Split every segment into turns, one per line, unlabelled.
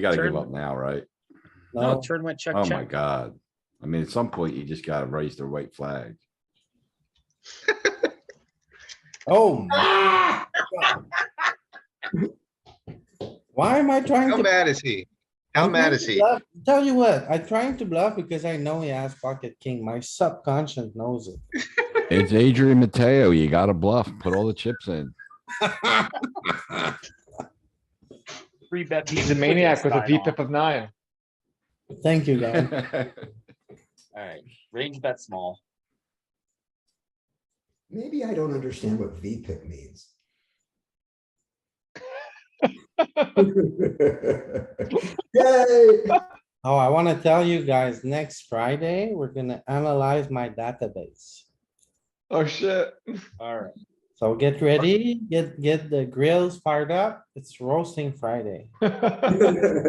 You gotta give
Turn.
up now, right?
No,
No,
turn went check,
Oh my
check.
god. I mean, at some point, you just gotta raise the white flag.
oh. Why am I trying
How
to?
mad is he? How
I'm trying
mad
to
is he?
bluff- Tell you what, I'm trying to bluff because I know he has pocket king. My subconscious knows it.
It's Adrian Mateo. You gotta bluff, put all the chips in.
Three bet.
He's a maniac with a VPIP of nine.
Thank you, guys.
Alright, range bet small.
Maybe I don't understand what V pick means. Yay!
Oh, I wanna tell you guys, next Friday, we're gonna analyze my database.
Oh, shit.
Alright,
So get ready, get, get the grills fired up. It's roasting Friday.
uh,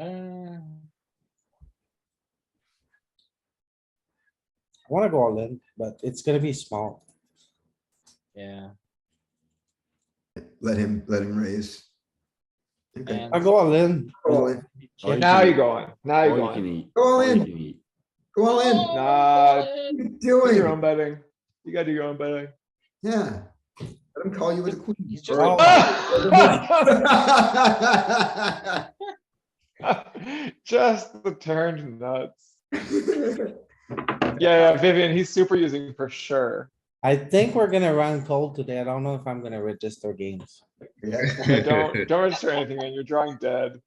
I wanna go all in, but it's gonna be small.
yeah,
Let him, let him raise. Okay,
and
I go all in.
Go all in.
Oh, you
Now
can-
you're going. Now
all
you're
you can
going.
eat,
Go all
all you
in.
can eat.
Go all in. What
Nah,
are you
Uh, do your own
Doing,
betting. You gotta do your own betting.
yeah. Let him call you with a queen.
He's just-
bro.
Just the turned nuts. Yeah, yeah, Vivian, he's super using for sure.
I think we're gonna run cold today. I don't know if I'm gonna register games.
Yeah.
Yeah, Don't, don't register anything and you're drawing dead.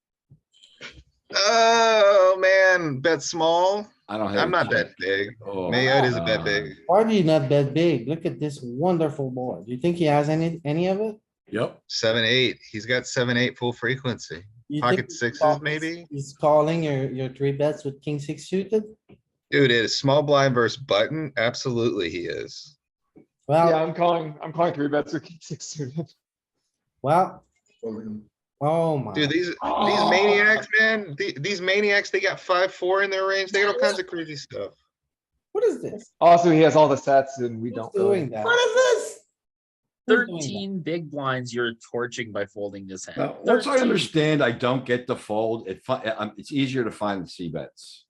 Oh, man, bet small.
I don't have.
I'm
a
not
chip.
that big.
Oh,
Mayotte is a bet
God.
big.
Why do you not bet big? Look at this wonderful board. Do you think he has any, any of it?
Yep.
Seven, eight. He's got seven, eight full frequency.
You think
Pocket
he's
sixes,
call-
maybe?
He's calling your, your three bets with king six suited?
Dude, it is small blind versus button. Absolutely, he is.
Yeah,
Well,
I'm calling, I'm calling three bets with king six suited.
well,
Fold
oh my.
Dude, these, these maniacs, man, the- these maniacs, they got five, four in their range. They got all kinds of crazy stuff.
What is this?
Also, he has all the sets and we
Who's
don't
doing
really.
that? Who's doing
is
thirteen big blinds you're torching by folding this hand.
Now, once I
13.
understand, I don't get the fold. It, fi- um, it's easier to find the C bets.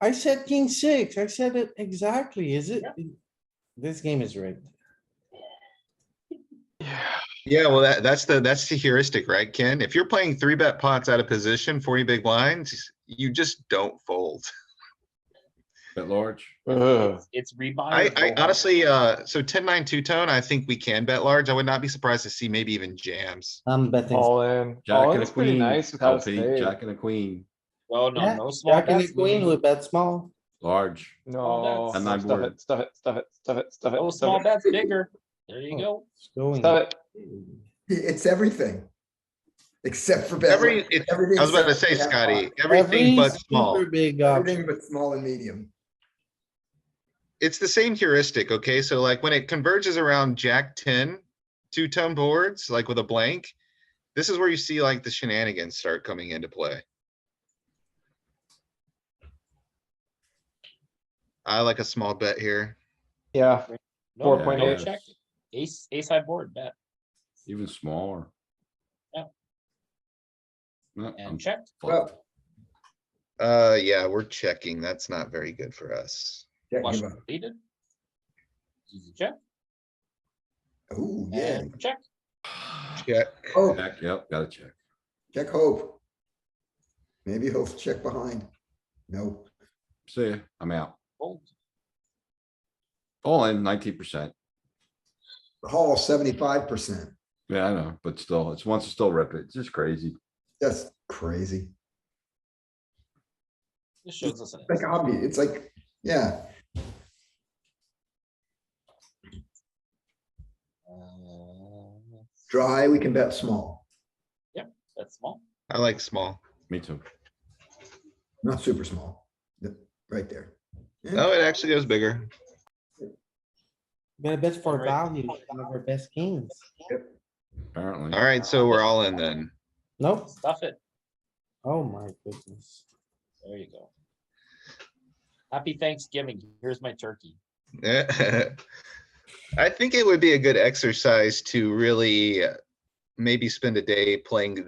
that? I said king six. I said it exactly. Is it? This game is rigged.
Yeah.
Yeah, well, that, that's the, that's the heuristic, right, Ken? If you're playing three bet pots out of position, forty big blinds, you just don't fold.
Bet large.
Ugh.
It's rebuy.
I,
or
I
roll.
honestly, uh, so ten, nine, two tone, I think we can bet large. I would not be surprised to see maybe even jams.
I'm betting.
All in.
Jack
All
and a
in's Oh, pretty
queen.
nice without
LP,
a spade.
Jack and a queen,
No, no,
Yeah,
no small
Jack and the
bets.
queen
Louis.
with bet small.
large.
No.
I'm
not
Stuff
bored.
it, stuff it, stuff it, stuff it, stuff
No
it,
small
stuff it,
bets bigger. There you go.
It's going.
stuff it.
It's everything. Except for. bet-
Every, it-
everything
I was about to
except
say,
for bet
Scotty,
pot.
everything
Every
but
super
small.
Big option.
Everything but small and medium.
It's the same heuristic, okay? So like when it converges around Jack ten, two tone boards, like with a blank. This is where you see like the shenanigans start coming into play. I like a small bet here.
Yeah,
No,
Four
no
point
Yeah,
eight.
check.
yes.
Ace, ace high board bet
Even smaller.
Yeah.
No, I'm
and check.
fold.
Uh, yeah, we're checking. That's not very good for us.
Jack
Flush
give up.
completed. Easy check
Ooh, yeah.
and check.
Yeah,
Oh,
Check, yep, gotta check.
check hope. Maybe he'll check behind. No.
See, ya, I'm out.
Fold.
All in nineteen percent.
Hall seventy-five percent.
Yeah, I know, but still, it's once it's still rip it. It's just crazy.
That's crazy.
This shows us an.
Like obvious. It's like, yeah.
Uh,
Dry, we can bet small,
That's small.
I like small.
Me too.
not super small. Th- Right there.
No, Oh, it actually goes bigger.
Gonna bet for
Alright.
value, never best kings.
Apparently,
All right, so we're all in then.
Nope.
Stuff it.
Oh my goodness.
There you go. Happy Thanksgiving. Here's my turkey.
I think it would be a good exercise to really uh, maybe spend a day playing